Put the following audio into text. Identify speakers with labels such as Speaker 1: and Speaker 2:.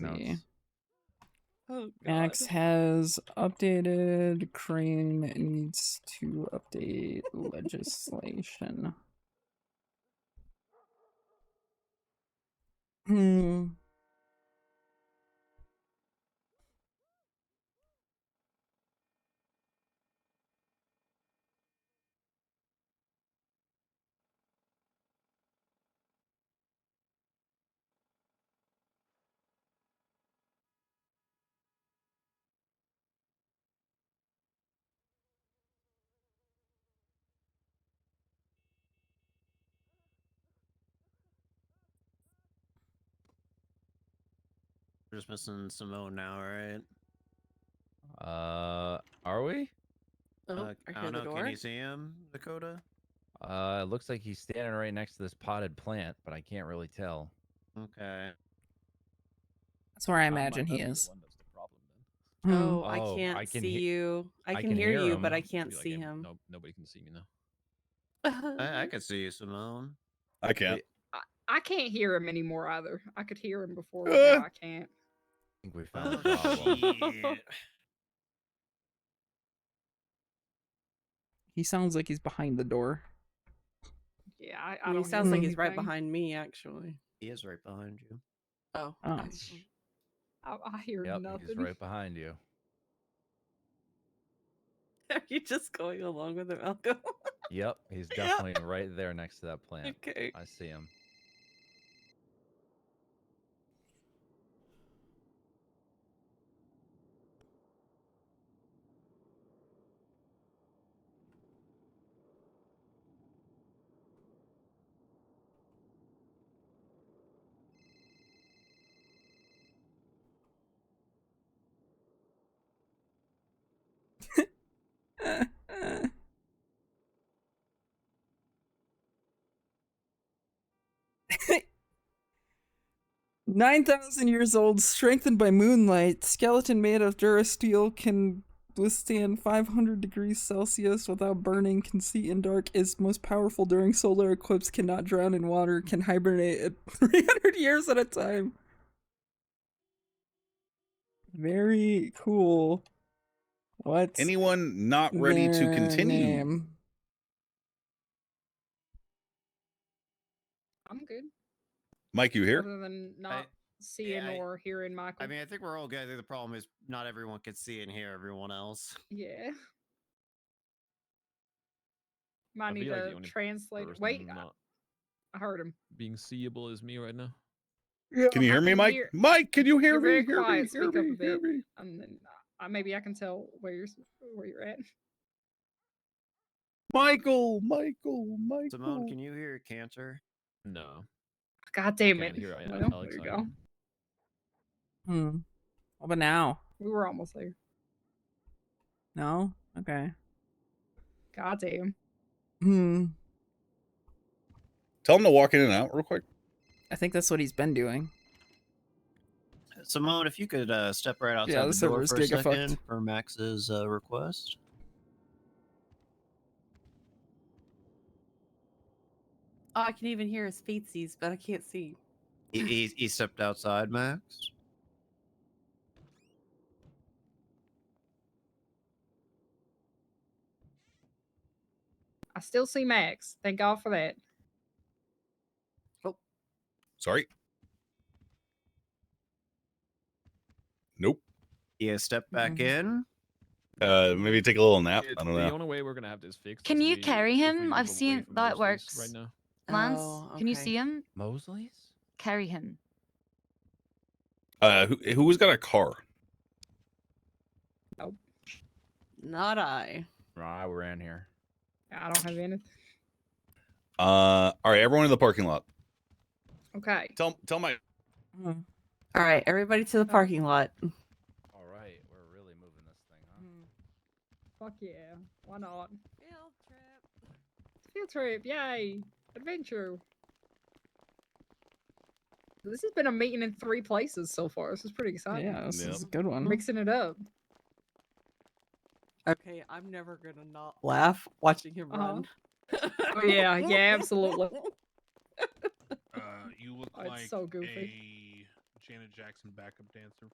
Speaker 1: Oh,
Speaker 2: Max has updated. Crane needs to update legislation. Hmm.
Speaker 3: We're just missing Simone now, right?
Speaker 4: Uh, are we?
Speaker 1: Oh,
Speaker 3: Uh, I
Speaker 1: I hear
Speaker 3: don't
Speaker 1: the
Speaker 3: know. Can
Speaker 1: door.
Speaker 3: you see him, Dakota?
Speaker 4: Uh, it looks like he's standing right next to this potted plant, but I can't really tell.
Speaker 3: Okay.
Speaker 2: That's where I
Speaker 5: Um,
Speaker 2: imagine he
Speaker 5: that's the
Speaker 2: is.
Speaker 5: one that's the problem, then.
Speaker 2: Hmm.
Speaker 1: Oh,
Speaker 4: Oh,
Speaker 1: I can't
Speaker 4: I can
Speaker 1: see
Speaker 4: he-
Speaker 1: you. I, can, hear, you, but I can't
Speaker 5: Be like,
Speaker 1: see
Speaker 5: "Hey,
Speaker 1: him.
Speaker 5: No, nobody can see me now.
Speaker 1: Mm-hmm.
Speaker 3: I, I could see you, Simone.
Speaker 6: I can't.
Speaker 7: I can't hear him anymore either. I could hear him before, but
Speaker 6: Uh.
Speaker 7: now I can't.
Speaker 4: I think we found the
Speaker 3: Oh,
Speaker 4: problem.
Speaker 3: shit.
Speaker 2: He sounds like he's behind the door.
Speaker 7: Yeah, I, I
Speaker 1: He
Speaker 7: don't. hear
Speaker 1: sounds like he's right
Speaker 7: anything.
Speaker 1: behind me, actually.
Speaker 3: he is right behind you.
Speaker 1: Oh,
Speaker 2: Oh.
Speaker 1: okay.
Speaker 7: I, I hear
Speaker 4: Yep,
Speaker 7: nothing.
Speaker 4: he's right behind you.
Speaker 1: are you just going along with him, Malcolm?
Speaker 4: Yep, he's
Speaker 1: Yeah.
Speaker 4: definitely right there next to that plant.
Speaker 1: okay.
Speaker 4: I see him.
Speaker 2: Nine thousand years old, strengthened by moonlight, skeleton made of durasteel can withstand 500 degrees Celsius without burning, can see in dark, is most powerful during solar eclipse, cannot drown in water, can hibernate at 300 years at a time. Very cool. What's
Speaker 6: Anyone not ready to
Speaker 2: their
Speaker 6: continue?
Speaker 2: name?
Speaker 7: I'm good.
Speaker 6: Mike, you here?
Speaker 7: Other than not seeing
Speaker 3: I-
Speaker 7: or hearing Michael.
Speaker 3: I mean, I think we're all good. I think the problem is not everyone can see and hear everyone else.
Speaker 7: yeah. Might
Speaker 5: I'd be,
Speaker 7: need
Speaker 5: like, the
Speaker 7: to
Speaker 5: only
Speaker 7: translate.
Speaker 5: Person
Speaker 7: Wait, uh I,
Speaker 5: not
Speaker 7: I heard him.
Speaker 5: being seeable is me right now.
Speaker 6: Can you
Speaker 7: I
Speaker 6: hear me, Mike? Mike, can you hear
Speaker 7: You're
Speaker 6: me?
Speaker 7: very
Speaker 6: Hear me,
Speaker 7: quiet.
Speaker 6: hear
Speaker 7: Speak up
Speaker 6: me,
Speaker 7: a
Speaker 6: hear
Speaker 7: bit.
Speaker 6: me.
Speaker 7: And then I, maybe I can tell where you're s- where you're at.
Speaker 6: Michael, Michael, Michael.
Speaker 3: Simone, can you hear Cantor?
Speaker 5: No.
Speaker 7: God damn
Speaker 5: can't
Speaker 7: it!
Speaker 5: hear I-
Speaker 7: Well,
Speaker 5: Alex
Speaker 7: there you
Speaker 5: either.
Speaker 7: go.
Speaker 2: Hmm. What about now?
Speaker 7: We were almost there.
Speaker 2: No? Okay.
Speaker 7: God damn.
Speaker 2: Hmm.
Speaker 6: Tell him to walk in and out real quick.
Speaker 2: I think that's what he's been doing.
Speaker 3: Simone, if you could uh, step right outside
Speaker 2: Yeah, the
Speaker 3: the door
Speaker 2: server's
Speaker 3: for a
Speaker 2: gigafucked.
Speaker 3: second for Max's uh, request.
Speaker 1: Oh, I can even hear his feetsies, but I can't see.
Speaker 3: He, he, he stepped outside, Max.
Speaker 7: I still see Max. Thank God for that.
Speaker 6: Sorry. Nope.
Speaker 3: Yeah, step back
Speaker 2: Mhm.
Speaker 1: Mm-hmm.
Speaker 3: in.
Speaker 6: Uh, maybe take a little nap.
Speaker 5: It's
Speaker 6: I don't
Speaker 5: The
Speaker 6: know.
Speaker 5: only way we're gonna have this fixed.
Speaker 8: Can
Speaker 5: is
Speaker 8: you
Speaker 5: we-
Speaker 8: carry
Speaker 5: if we
Speaker 8: him?
Speaker 5: move
Speaker 8: I've
Speaker 5: away
Speaker 8: seen
Speaker 5: from
Speaker 8: that
Speaker 5: Mosley's Right
Speaker 8: works.
Speaker 5: now.
Speaker 8: Lance,
Speaker 1: Oh,
Speaker 8: can you
Speaker 1: okay.
Speaker 8: see him?
Speaker 4: Mosley's?
Speaker 8: Carry him.
Speaker 6: Uh, who, who's got a car?
Speaker 1: Not I.
Speaker 4: Nah, we're in here.
Speaker 7: I don't have anything.
Speaker 6: Uh, all right, everyone in the parking lot.
Speaker 7: Okay.
Speaker 6: Tell tell my
Speaker 2: Hmm.
Speaker 1: All right, everybody to the parking lot.
Speaker 4: All right, we're really moving this thing,
Speaker 2: Hmm.
Speaker 4: huh?
Speaker 7: Fuck yeah. Why not? Field trip. Yay. Adventure. This has been a meeting in three places so far. This is pretty exciting.
Speaker 2: Yeah, this
Speaker 6: Yep.
Speaker 2: is a good one.
Speaker 7: Mixing it up.
Speaker 1: Okay, I'm never gonna not laugh watching him
Speaker 7: Uh-huh.
Speaker 1: run.
Speaker 7: Oh, yeah, yeah, absolutely.
Speaker 9: Uh, you look
Speaker 7: Oh, it's
Speaker 9: like
Speaker 7: so goofy.
Speaker 9: a Janet Jackson backup dancer.